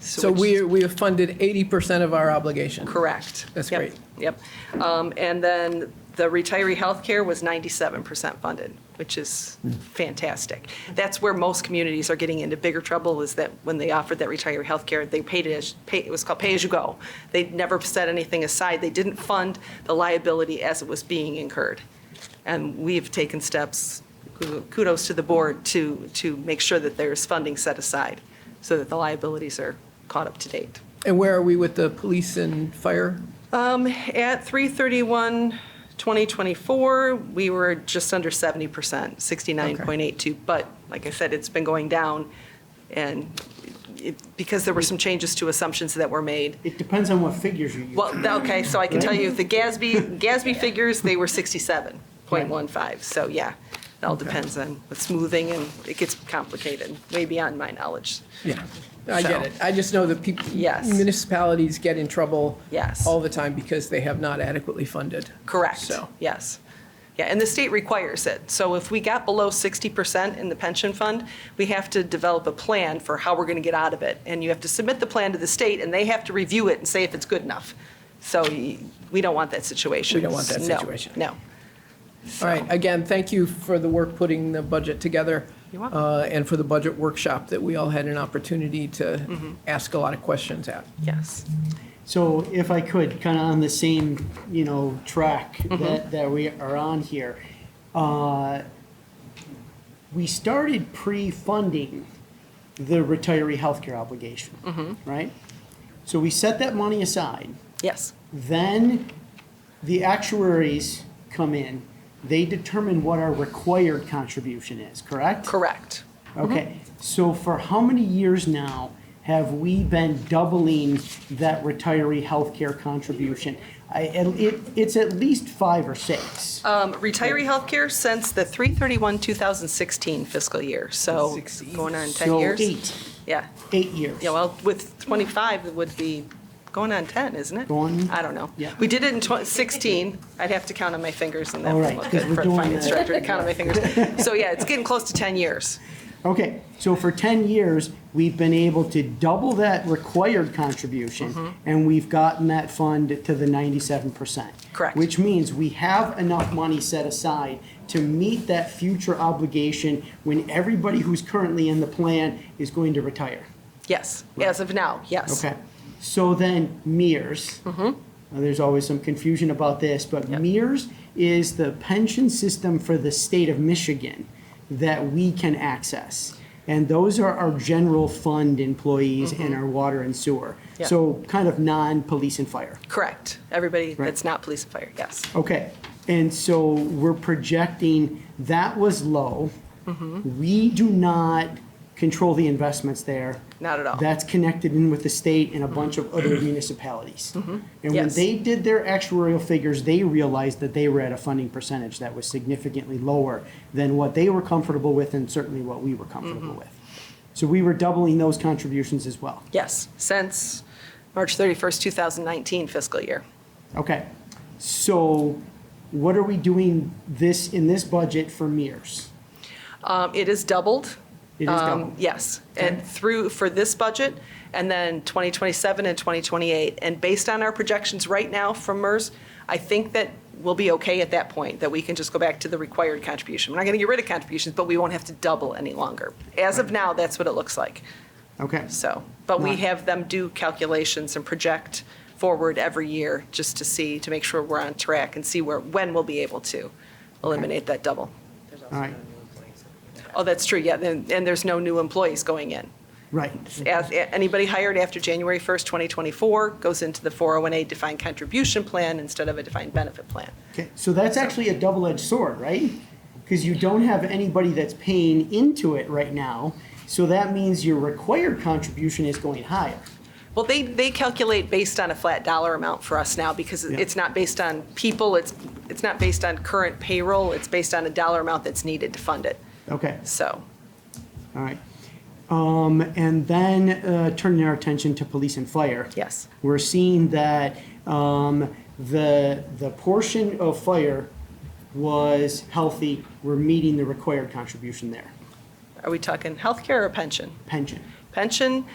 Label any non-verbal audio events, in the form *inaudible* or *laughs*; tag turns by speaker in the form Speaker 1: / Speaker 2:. Speaker 1: So we, we have funded 80% of our obligation.
Speaker 2: Correct.
Speaker 1: That's
Speaker 2: Yep,
Speaker 1: great.
Speaker 2: Yep. Um, And then the retiree health care was 97% funded, which is fantastic. That's where most communities are getting into bigger trouble is that when they offered that retiree health care, they paid it as, pay- it was called pay-as-you-go. They never set anything aside. They didn't fund the liability as it was being incurred. And we've taken steps, kudos to the board, to, to make sure that there's funding set aside so that the liabilities are caught up to date.
Speaker 1: And where are we with the police and fire?
Speaker 2: Um, At 3/31/2024, we were just under 70%, 69.82. But like I said, it's been going down, and it- because there were some changes to assumptions that were made.
Speaker 3: It depends on what figures you use.
Speaker 2: Well, th- okay, so I can tell you, the GASB, GASB figures, they were 67.15. So yeah, it all depends on the smoothing, and it gets complicated, way beyond my knowledge.
Speaker 1: Yeah, I get
Speaker 2: So-
Speaker 1: it. I just know that people,
Speaker 2: Yes.
Speaker 1: municipalities get in trouble
Speaker 2: Yes.
Speaker 1: all the time because they have not adequately funded.
Speaker 2: Correct,
Speaker 1: So,
Speaker 2: yes. Yeah, and the state requires it. So if we got below 60% in the pension fund, we have to develop a plan for how we're going to get out of it. And you have to submit the plan to the state, and they have to review it and say if it's good enough. So y- we don't want that situation.
Speaker 1: We don't want that
Speaker 2: No,
Speaker 1: situation.
Speaker 2: No.
Speaker 1: all right, again, thank you for the work putting the budget together.
Speaker 2: You're welcome.
Speaker 1: uh, And for the budget workshop that we all had an opportunity
Speaker 2: Mm-hmm.
Speaker 1: to ask a lot of questions at.
Speaker 2: Yes,
Speaker 3: So if I could, kind of on the same, you know, track that, that we are on here. uh, We started pre-funding the retiree healthcare obligation, right? So we set that money aside.
Speaker 2: yes,
Speaker 3: Then the actuaries come in. They determine what our required contribution is, correct?
Speaker 2: correct.
Speaker 3: Okay, so for how many years now have we been doubling that retiree healthcare contribution? I, and it, it's at least five or six.
Speaker 2: Um, Retiree health care since the 3/31/2016 fiscal year, so
Speaker 1: 16.
Speaker 2: going on 10
Speaker 3: So
Speaker 2: years.
Speaker 3: eight,
Speaker 2: Yeah.
Speaker 3: eight years.
Speaker 2: Yeah, well, with 25, it would be going on 10, isn't it?
Speaker 3: Going-
Speaker 2: I don't know.
Speaker 3: Yeah.
Speaker 2: We did it in twen- 16. I'd have to count on my fingers and
Speaker 3: All
Speaker 2: then
Speaker 3: right,
Speaker 2: look
Speaker 3: 'cause
Speaker 2: at-
Speaker 3: we're
Speaker 2: for the
Speaker 3: doing
Speaker 2: finance
Speaker 3: that.
Speaker 2: director to count on my fingers.
Speaker 3: *laughs*
Speaker 2: So yeah, it's getting close to 10 years.
Speaker 3: Okay, so for 10 years, we've been able to double that required contribution, and we've gotten that fund to the 97%.
Speaker 2: Correct.
Speaker 3: Which means we have enough money set aside to meet that future obligation when everybody who's currently in the plan is going to retire.
Speaker 2: Yes, as of now, yes. Mm-hmm.
Speaker 3: Okay, so then MERS. Now, There's always some confusion about this, but MERS is the pension system for the state of Michigan that we can access. And those are our general fund employees and our water and sewer.
Speaker 2: Mm-hmm. Yeah.
Speaker 3: So kind of non-police and fire.
Speaker 2: Correct. Everybody
Speaker 3: Right.
Speaker 2: that's not police and fire, yes.
Speaker 3: Okay, and so we're projecting, that was low.
Speaker 2: Mm-hmm.
Speaker 3: We do not control the investments there.
Speaker 2: Not at all. Mm-hmm.
Speaker 3: That's connected in with the state and a bunch of other municipalities. And when
Speaker 2: Yes.
Speaker 3: they did their actuarial figures, they realized that they were at a funding percentage that was significantly lower than what they were comfortable with and certainly what we were comfortable
Speaker 2: Mm-hmm.
Speaker 3: with. So we were doubling those contributions as well.
Speaker 2: Yes, since March 31st, 2019 fiscal year.
Speaker 3: Okay, so what are we doing this, in this budget for MERS?
Speaker 2: Um, It is doubled.
Speaker 3: It is
Speaker 2: Um,
Speaker 3: doubled.
Speaker 2: Yes, and through, for this budget, and then 2027 and 2028. And based on our projections right now from MERS, I think that we'll be okay at that point, that we can just go back to the required contribution. We're not going to get rid of contributions, but we won't have to double any longer. As of now, that's what it looks like,
Speaker 3: Okay,
Speaker 2: so. But we
Speaker 3: Right.
Speaker 2: have them do calculations and project forward every year, just to see, to make sure we're on track and see where, when we'll be able to eliminate that double.
Speaker 3: all right,
Speaker 2: Oh, that's true, yeah, and, and there's no new employees going in.
Speaker 3: right,
Speaker 2: As- Anybody hired after January 1st, 2024 goes into the 401A defined contribution plan instead of a defined benefit plan.
Speaker 3: okay, so that's actually a double-edged sword, right? Because you don't have anybody that's paying into it right now, so that means your required contribution is going higher.
Speaker 2: Well, they, they calculate based on a flat dollar amount for us now because
Speaker 3: Yeah.
Speaker 2: it's not based on people, it's, it's not based on current payroll, it's based on a dollar amount that's needed to fund it,
Speaker 3: Okay,
Speaker 2: so.
Speaker 3: all right. Um, and then, uh, turning our attention to police and fire.
Speaker 2: Yes.
Speaker 3: We're seeing that, um, the, the portion of fire was healthy, we're meeting the required contribution there,
Speaker 2: Are we talking healthcare or pension?
Speaker 3: pension.
Speaker 2: Pension,